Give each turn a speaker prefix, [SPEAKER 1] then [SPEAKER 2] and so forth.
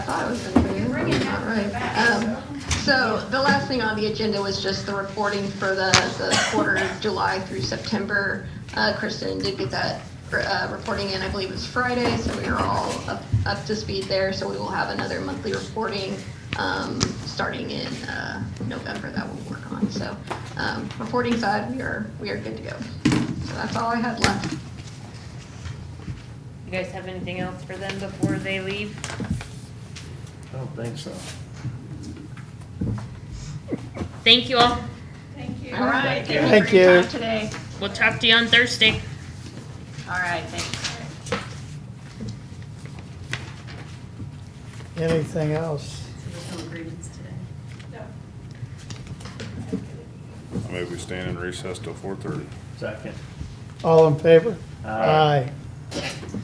[SPEAKER 1] thought it was gonna be. All right. Um, So the last thing on the agenda was just the reporting for the, the quarter of July through September. Uh, Kristen did get that, uh, reporting in, I believe it was Friday, so we are all up, up to speed there. So we will have another monthly reporting, um, starting in, uh, November that we'll work on. So, um, reporting side, we are, we are good to go. So that's all I had left.
[SPEAKER 2] You guys have anything else for them before they leave?
[SPEAKER 3] I don't think so.
[SPEAKER 2] Thank you all.
[SPEAKER 4] Thank you.
[SPEAKER 1] All right.
[SPEAKER 3] Thank
[SPEAKER 5] for your
[SPEAKER 3] you.
[SPEAKER 5] time Today.
[SPEAKER 2] We'll talk to you on Thursday.
[SPEAKER 5] All right, thanks.
[SPEAKER 3] Anything else?
[SPEAKER 5] There's no agreements today.
[SPEAKER 4] No.
[SPEAKER 6] I move we stand in recess till four thirty.
[SPEAKER 3] Uh, Second. All in favor? Aye.